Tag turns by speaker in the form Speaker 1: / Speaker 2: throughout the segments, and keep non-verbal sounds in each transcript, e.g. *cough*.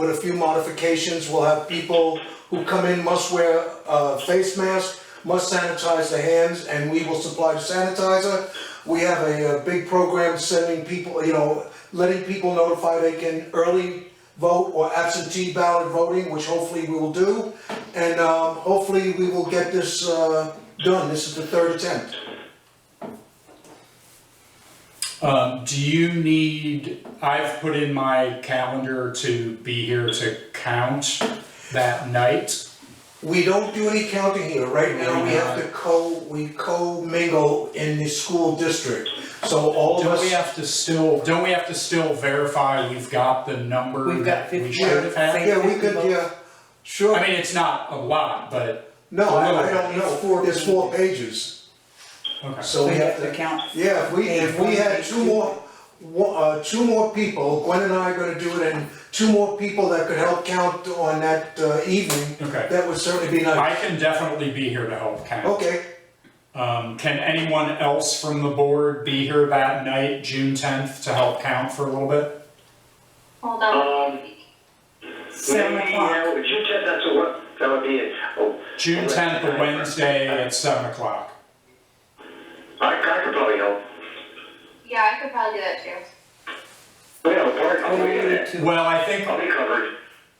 Speaker 1: with a few modifications, we'll have people who come in must wear a face mask, must sanitize their hands, and we will supply the sanitizer. We have a, uh big program sending people, you know, letting people notify they can early vote or absentee ballot voting, which hopefully we will do. And, um, hopefully we will get this, uh, done. This is the third attempt.
Speaker 2: Um, do you need, I've put in my calendar to be here to count that night.
Speaker 1: We don't do any counting here, right now, we have to co, we co-mingle in the school district, so all of
Speaker 2: Don't Oh, we
Speaker 1: us.
Speaker 2: have to still, don't we have to still verify we've got the number
Speaker 3: We've
Speaker 2: that
Speaker 3: got
Speaker 2: we
Speaker 3: 50.
Speaker 2: should have had?
Speaker 1: Yeah, we could, yeah, sure,
Speaker 2: I mean, it's not a lot, but,
Speaker 1: no, I I
Speaker 2: It's
Speaker 1: don't know,
Speaker 3: four
Speaker 1: it's four pages,
Speaker 2: okay.
Speaker 1: so we have to.
Speaker 3: count.
Speaker 1: Yeah, if we, if we had
Speaker 3: Page
Speaker 1: two
Speaker 3: one, page
Speaker 1: more, one- uh, two more people, Gwen and I are gonna do it, and two more people that could help count on that uh, evening.
Speaker 2: Okay.
Speaker 1: That would certainly be nice,
Speaker 2: I can definitely be here to help count.
Speaker 1: okay,
Speaker 2: Um, can anyone else from the board be here that night, June tenth, to help count for a little bit?
Speaker 4: Hold on.
Speaker 5: Um,
Speaker 3: Seven
Speaker 5: maybe,
Speaker 3: o'clock.
Speaker 5: yeah, Would you check that to what, that would be it. Oh,
Speaker 2: June tenth, a Wednesday at seven o'clock.
Speaker 5: I, I could probably help.
Speaker 4: Yeah, I could probably do that too.
Speaker 5: We have a park
Speaker 3: Oh,
Speaker 5: committee
Speaker 3: we
Speaker 5: in
Speaker 3: need
Speaker 5: there.
Speaker 3: to.
Speaker 2: Well, I think
Speaker 5: I'll be covered.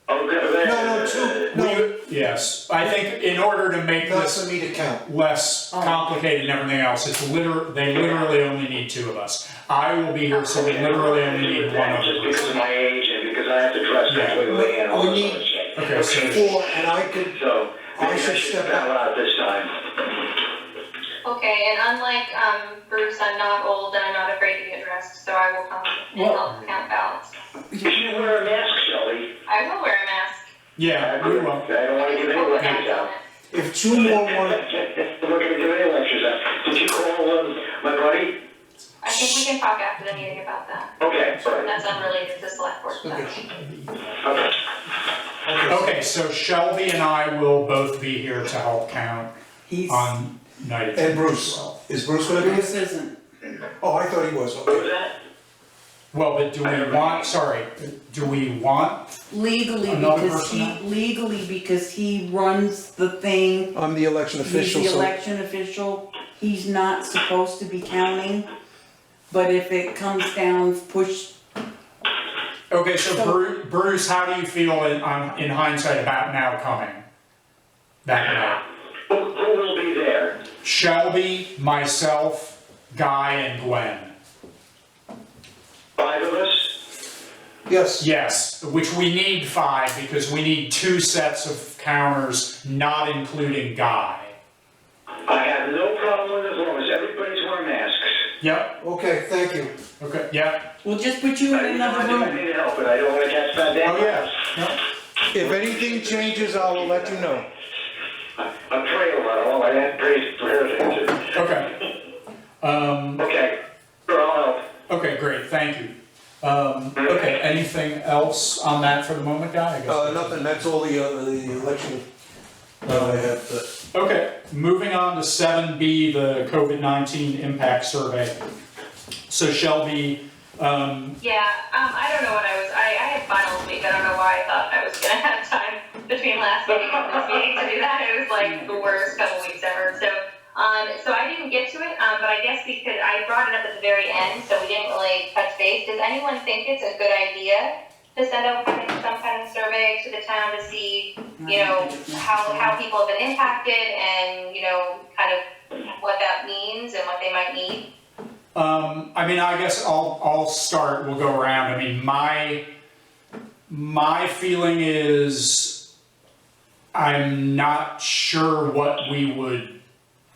Speaker 5: I'll get there.
Speaker 1: no, no, two, no,
Speaker 2: We- Yes, I think in order to make
Speaker 1: not
Speaker 2: this
Speaker 1: for me to Oh. count,
Speaker 2: less complicated and everything else, it's liter, they literally only need two of us. I will be here, so we literally only need one of
Speaker 5: Just
Speaker 2: us.
Speaker 5: because of my age and because I have to dress
Speaker 2: Yeah.
Speaker 5: completely and all
Speaker 1: We
Speaker 5: this
Speaker 1: need-
Speaker 5: other shit.
Speaker 2: Okay, so,
Speaker 1: four, and I could,
Speaker 5: So,
Speaker 1: I
Speaker 5: maybe I
Speaker 1: should
Speaker 5: should
Speaker 1: step
Speaker 5: bow out this time.
Speaker 4: Okay, and unlike um, Bruce, I'm not old and I'm not afraid to get dressed, so I will come and
Speaker 2: Well-
Speaker 4: help count ballots.
Speaker 5: You should wear a mask, Shelley.
Speaker 4: I will wear a mask.
Speaker 2: yeah, we will.
Speaker 5: I don't wanna give any
Speaker 4: I'll put
Speaker 5: lectures
Speaker 4: hats on
Speaker 5: out.
Speaker 4: it.
Speaker 1: if two more wanna,
Speaker 5: I'm not gonna give any lectures out. Did you call, um, my buddy?
Speaker 4: I think we can talk after the meeting about that.
Speaker 5: Okay, sorry.
Speaker 4: That's unrelated to select board stuff.
Speaker 5: Okay.
Speaker 2: Okay, so Shelby and I will both be here to help count
Speaker 3: He's,
Speaker 2: on night of
Speaker 1: and
Speaker 2: June
Speaker 1: Bruce,
Speaker 2: 12.
Speaker 1: is Bruce gonna be?
Speaker 3: Bruce isn't.
Speaker 1: Oh, I thought he was,
Speaker 5: What
Speaker 1: okay,
Speaker 5: was that?
Speaker 2: Well, but do we want, sorry, do we want,
Speaker 3: Legally,
Speaker 2: Another
Speaker 3: because
Speaker 2: person
Speaker 3: he,
Speaker 2: now?
Speaker 3: legally, because he runs the thing.
Speaker 1: I'm the election
Speaker 3: He's
Speaker 1: official,
Speaker 3: the
Speaker 1: so,
Speaker 3: election official. He's not supposed to be counting. But if it comes down, push,
Speaker 2: okay, so Bru- Bruce, how do you feel in, on- in hindsight about now coming? That night?
Speaker 5: Who, who will be there?
Speaker 2: Shelby, myself, Guy, and Gwen.
Speaker 5: Five of us?
Speaker 1: yes,
Speaker 2: Yes, which we need five because we need two sets of counters, not including Guy.
Speaker 5: I have no problem as long as everybody's wearing masks.
Speaker 2: Yep,
Speaker 1: okay, thank you.
Speaker 2: okay, yep.
Speaker 3: we'll just put you
Speaker 5: I
Speaker 3: in
Speaker 5: need
Speaker 3: another
Speaker 5: I
Speaker 3: room.
Speaker 5: need help, but I don't wanna catch that damn.
Speaker 2: Oh, yeah. Yep.
Speaker 1: If anything changes, I will let you know.
Speaker 5: I I pray a lot, all I have praise for everything.
Speaker 2: Okay. Um,
Speaker 5: Okay, sure, I'll help.
Speaker 2: okay, great, thank you. Um, okay, anything else on that for the moment, Guy? I guess
Speaker 1: Uh,
Speaker 2: that's-
Speaker 1: nothing, that's all the, uh, the election, uh, I have to.
Speaker 2: Okay, moving on to seven B, the COVID-19 impact survey. So Shelby, um,
Speaker 4: Yeah, um, I don't know what I was, I, I had finals week, I don't know why I thought I was gonna *laughs* have time between last meeting and this meeting to do that, it was like the worst couple weeks ever, so, um, so I didn't get to it, um, but I guess because I brought it up at the very end, so we didn't really touch base, does anyone think it's a good idea to send out kind of- some kind of survey to the town to see, you know, how, how people have been impacted and, you know, kind of what that means and what they might need?
Speaker 2: Um, I mean, I guess I'll, I'll start, we'll go around. I mean, my, my feeling is I'm not sure what we would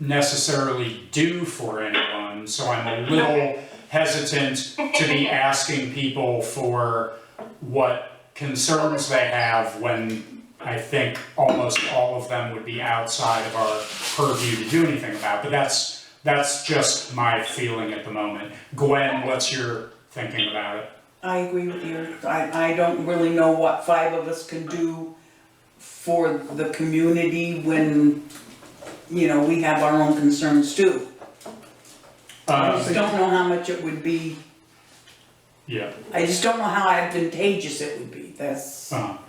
Speaker 2: necessarily do for anyone, so I'm a little hesitant to be asking people for what concerns they have when I think almost all of them would be outside of our purview to do anything about, but that's, that's just my feeling at the moment. Gwen, what's your thinking about it?
Speaker 3: I agree with you. I, I don't really know what five of us can do for the community when, you know, we have our own concerns too. I
Speaker 2: Um,
Speaker 3: just don't know how much it would be,
Speaker 2: yeah,
Speaker 3: I just don't know how advantageous it would be.
Speaker 6: that's.
Speaker 2: uh-huh.
Speaker 3: Um,